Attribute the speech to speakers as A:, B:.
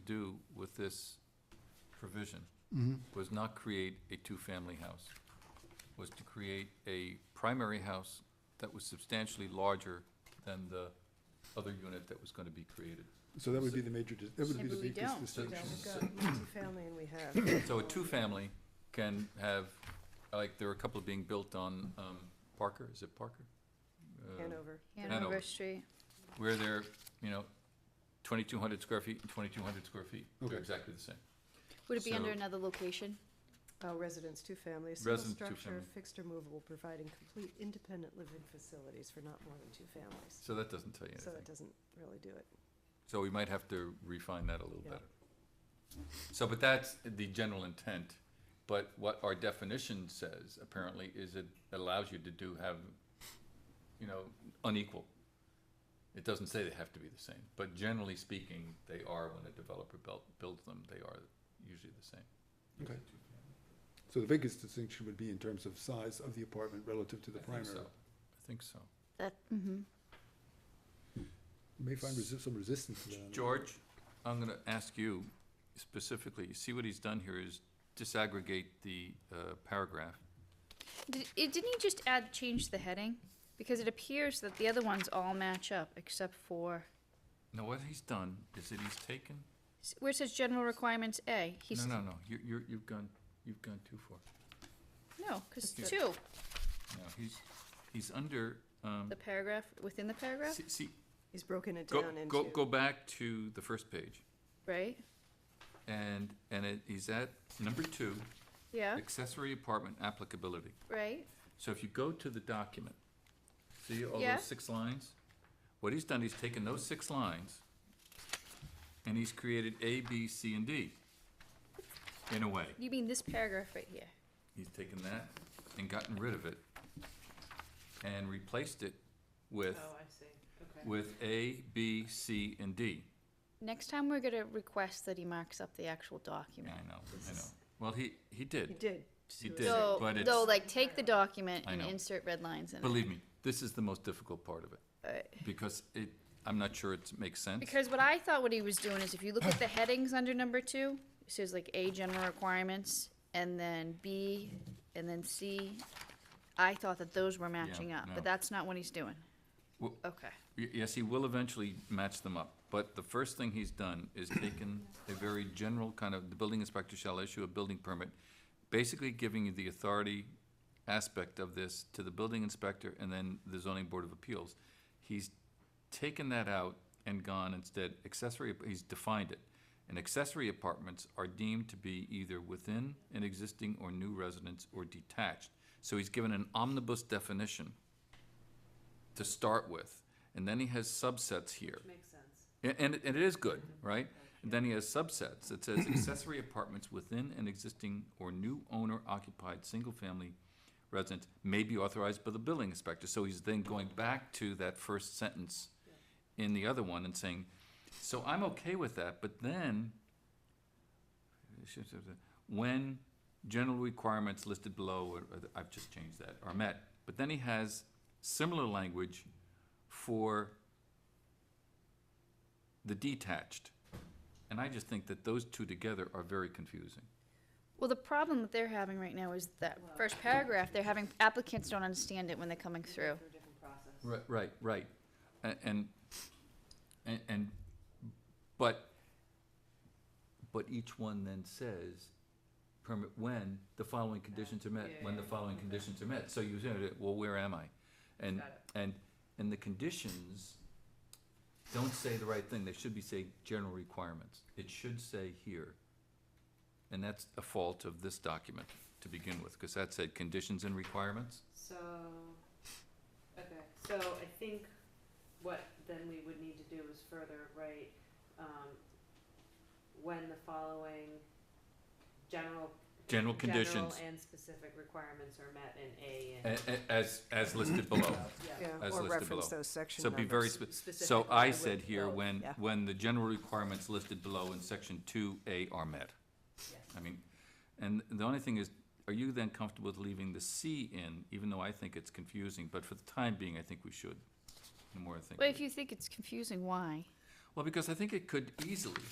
A: do with this provision
B: Mhm.
A: was not create a two-family house, was to create a primary house that was substantially larger than the other unit that was gonna be created.
B: So that would be the major, dis- that would be
C: Maybe
B: the
C: we
B: biggest
C: don't.
A: So-
B: distinction.
C: We've got multifamily and we have.
A: So a two-family can have, like, there are a couple being built on, um, Parker, is it Parker? Uh,
C: Hanover.
A: Hanover.
D: Hanover Street.
A: Where they're, you know, twenty-two hundred square feet and twenty-two hundred square feet,
B: Okay.
A: they're exactly the same.
D: Would it be under
A: So-
D: another location?
C: Uh, residence, two-family, a single
A: Residence,
C: structure,
A: two-family.
C: fixed or movable, providing complete independent living facilities for not more than two families.
A: So that doesn't tell you
C: So
A: anything.
C: that doesn't really do it.
A: So we might have to refine that a little
C: Yeah.
A: better. So, but that's the general intent, but what our definition says apparently is it allows you to do have, you know, unequal. It doesn't say they have to be the same, but generally speaking, they are when a developer built, builds them, they are usually the same.
B: Okay. So the biggest distinction would be in terms of size of the apartment relative to the
A: I think so.
B: primary.
A: I think so.
D: That, mm-hmm.
B: You May find resi- some resistance to that. I don't know.
A: George, I'm gonna ask you specifically, you see what he's done here is disaggregate the, uh, paragraph.
D: Did, it, didn't he just add, change the heading? Because it appears that the other ones all match up except for,
A: Now, what he's done is that he's taken
D: s- where it says general requirements A, he's.
A: No, no, no, you, you're, you've gone, you've gone too far.
D: No, because
A: Just
D: two,
A: No, he's, he's under, um,
D: the paragraph, within the paragraph,
A: see, see,
C: He's broken it
A: go,
C: down into.
A: go, go back to the first page.
D: right?
A: And, and it, he's at number two,
D: Yeah,
A: accessory apartment applicability.
D: right?
A: So if you go to the document, see all
D: Yeah.
A: those six lines? What he's done, he's taken those six lines and he's created A, B, C, and D, in a way.
D: You mean this paragraph right here?
A: He's taken that and gotten rid of it and replaced it with,
C: see,
A: with A, B, C, and D.
D: Next time, we're gonna request that he marks up the actual
A: Yeah,
D: document.
A: I know, I know. Well, he, he did.
C: He did.
A: He
C: so
A: did,
C: it's-
D: So,
A: but it's,
D: though, like, take the document
A: I
D: and
A: know.
D: insert red lines in it.
A: believe me, this is the most difficult part of it,
D: Uh,
A: because it, I'm not sure it makes sense.
D: Because what I thought what he was doing is if you look at the headings under number two, it says like A, general requirements, and then B, and then C. I thought that those were matching up,
A: no.
D: but that's not what he's doing.
A: Well-
D: Okay,
A: Y- Yes, he will eventually match them up, but the first thing he's done is taken a very general kind of, the building inspector shall issue a building permit, basically giving you the authority aspect of this to the building inspector and then the zoning board of appeals. He's taken that out and gone instead accessory, he's defined it. And accessory apartments are deemed to be either within an existing or new residence or detached. So he's given an omnibus definition to start with, and then he has subsets here. Makes sense. And, it- and it is good, right? And then he has subsets, it says accessory apartments within an existing or new owner occupied single-family residence may be authorized by the building inspector, so he's then going back to that first sentence in the other one and saying, so I'm okay with that, but then, when general requirements listed below, or- or- I've just changed that, are met, but then he has similar language for the detached. And I just think that those two together are very confusing.
D: well, the problem that they're having right now is that first paragraph, they're having applicants don't understand it when they're coming through.
A: Right, right, right. A- And, and, and, but, but each one then says, permit when the following conditions are met, when the following conditions are met. So you say, well, where am I? And, and, and the conditions don't say the right thing. They should be say general requirements. It should say here. And that's a fault of this document to begin with, because that said conditions and requirements.
E: So, okay, so I think what then we would need to do is further write, um, when the following general.
A: General conditions.
E: General and specific requirements are met in
A: A-
E: A and. E.
A: a- As, as listed below.
E: Yeah.
C: Yeah,
A: as listed
C: or reference
A: below.
C: those section
A: So be very, spe-
C: numbers.
E: Specific,
A: so I
E: would
A: said here,
E: vote.
A: when,
C: Yeah.
A: when the general requirements listed below in section two A are met.
E: Yes.
A: I mean, and the only thing is, are you then comfortable with leaving the C in, even though I think it's confusing, but for the time being, I think we should. The more I think.
D: But
A: of
D: if
A: it.
D: you think it's confusing, why?
A: Well, because I think it could easily